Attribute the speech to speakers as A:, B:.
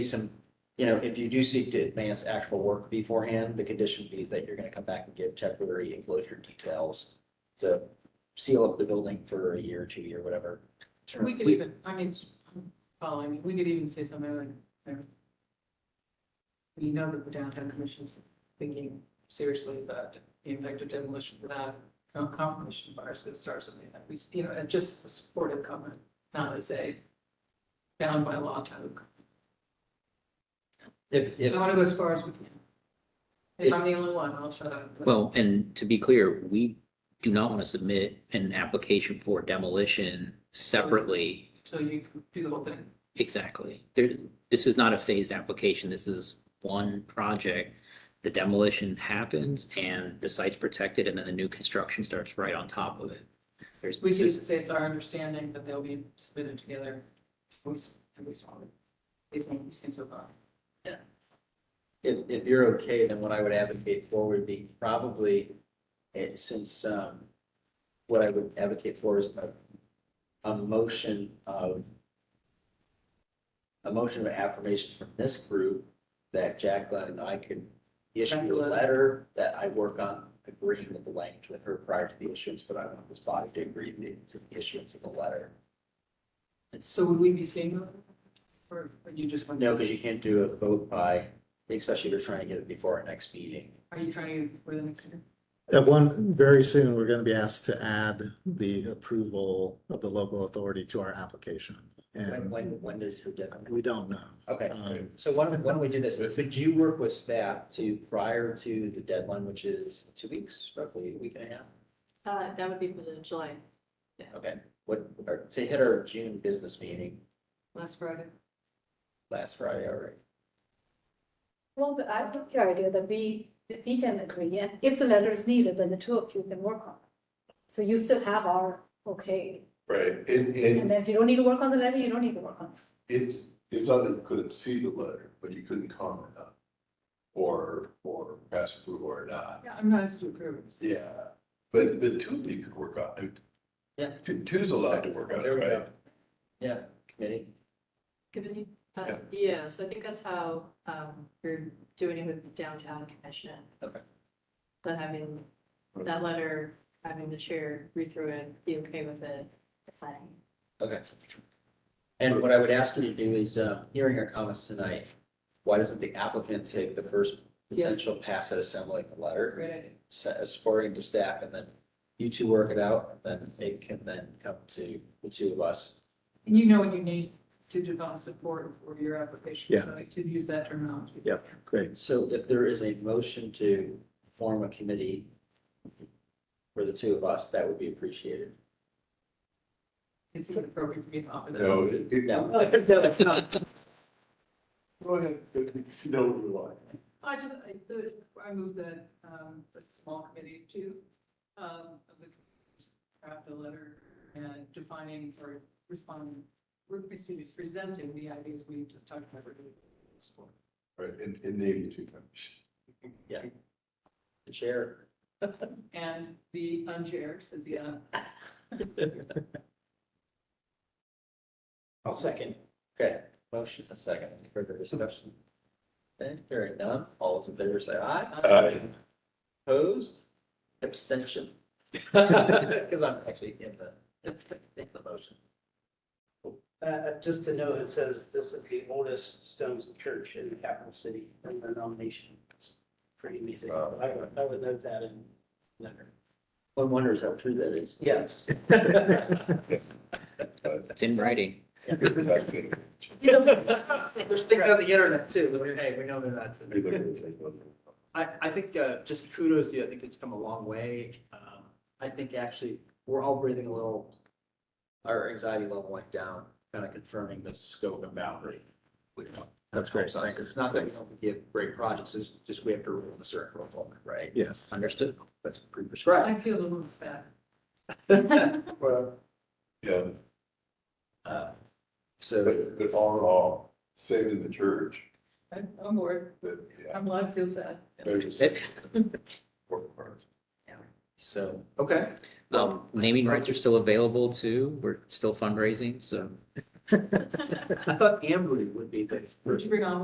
A: some, you know, if you do seek to advance actual work beforehand, the condition be that you're gonna come back and give temporary enclosure details to seal up the building for a year, two year, whatever. term.
B: We could even, I mean, um, I'm following, we could even say something like, you know, we know that the downtown commission's thinking seriously about the impact of demolition without com- confirmation bars could start something that we, you know, it's just a supportive comment, not as a bound by law type.
A: If,
B: I
A: if,
B: want to go as far as we can. If I'm the only one, I'll shut up. but-
C: Well, and to be clear, we do not want to submit an application for demolition separately.
B: So you can do the whole thing.
C: Exactly. There, this is not a phased application. This is one project. The demolition happens and the site's protected and then the new construction starts right on top of it. There's,
B: We
C: this
B: could
C: is,
B: say it's our understanding that they'll be submitted together. We s- and we saw it. It's what we've seen so far.
A: if, if you're okay, then what I would advocate for would be probably, eh, since, um, what I would advocate for is a, a motion of a motion of affirmation from this group that Jacqueline and I could issue a
B: Jacqueline.
A: letter that I work on agreeing with the language with her prior to the issuance, but I want this body to agree with the- to the issuance of the letter.
B: So would we be seeing them? Or are you just?
A: No, because you can't do a vote by, especially if you're trying to get it before our next meeting.
B: Are you trying to, get for the next year?
D: At one, very soon, we're gonna be asked to add the approval of the local authority to our application.
A: When,
D: And
A: when, when does her deadline?
D: we don't know.
A: Okay,
D: Um,
A: so why don't, why don't we do this? Could you work with staff to, prior to the deadline, which is two weeks, roughly a week and a half?
E: Uh, that would be for the July,
A: Okay, what, or to hit our June business meeting
B: last Friday?
A: last Friday already.
E: well, but I like your idea that we, if we can agree, and if the letter is needed, then the two of you can work on it. So you still have our, okay,
F: Right,
E: and
F: and, and
E: then if you don't need to work on the letter, you don't need to work on it.
F: it's, it's not that you couldn't see the letter, but you couldn't comment on it. Or, or pass approve or not.
B: Yeah, I'm not as to approve.
F: Yeah. But, but two of you could work on it.
A: Yeah.
F: Two, two's allowed to work on it,
A: There we
F: right?
A: go. Yeah, committee.
G: Given, uh,
F: Yeah.
G: yeah, so I think that's how, um, you're doing it with the downtown commission.
A: Okay.
G: But having that letter, having the chair read through it, be okay with it, signing.
A: Okay. And what I would ask you to do is, uh, hearing our comments tonight, why doesn't the applicant take the first
B: Yes.
A: potential pass at assembling the letter?
B: Great idea.
A: as forwarding to staff and then you two work it out, and then they can then come to the two of us.
B: And you know what you need to develop support for your application, so I could use that terminology.
D: Yeah. Great.
A: So if there is a motion to form a committee for the two of us, that would be appreciated.
B: It's appropriate for me to offer that.
F: No, it, it-
A: No, no, it's not.
F: go ahead, it's no rely.
B: I just, I, the- I moved that, um, the small committee to, um, of the draft a letter and defining or responding, we're basically just presenting the ideas we just talked about.
F: Right, and, and name the two members.
A: The chair.
B: And the unchair said the, uh,
A: I'll second. Okay, motion and second, any further discussion? Okay, hearing none, all those in favor say aye.
F: Aye.
A: Opposed, abstention. Because I'm actually in the, in the motion.
H: Uh, Uh, just to note, it says this is the oldest Stones church in the capital city in the nomination. It's pretty amazing.
A: Wow.
H: I would, I would note that in letter.
A: One wonders how true that is.
H: Yes.
C: it's in writing.
A: There's things on the internet too, that, hey, we know they're not. I, I think uh, just kudos to you. I think it's come a long way. Um, I think actually, we're all breathing a little, our anxiety level went down, kind of confirming the scope and boundary. which helps
D: That's great,
A: us.
D: thanks.
A: It's not that we don't give great projects, it's just we have to rule the circle of moment, right?
D: Yes.
C: Understood.
A: That's pretty prescribed.
B: I feel a little sad.
A: Well,
F: Yeah,
A: uh, So,
F: but, but all in all, saving the church,
B: I'm, I'm bored.
F: that, yeah,
B: I'm glad I feel sad.
F: there's
C: It-
F: important parts.
A: so, okay. Um,
C: Um, naming rights are still available too. We're still fundraising, so
I: I thought Ambry would be the
A: Would
I: person.
A: you bring on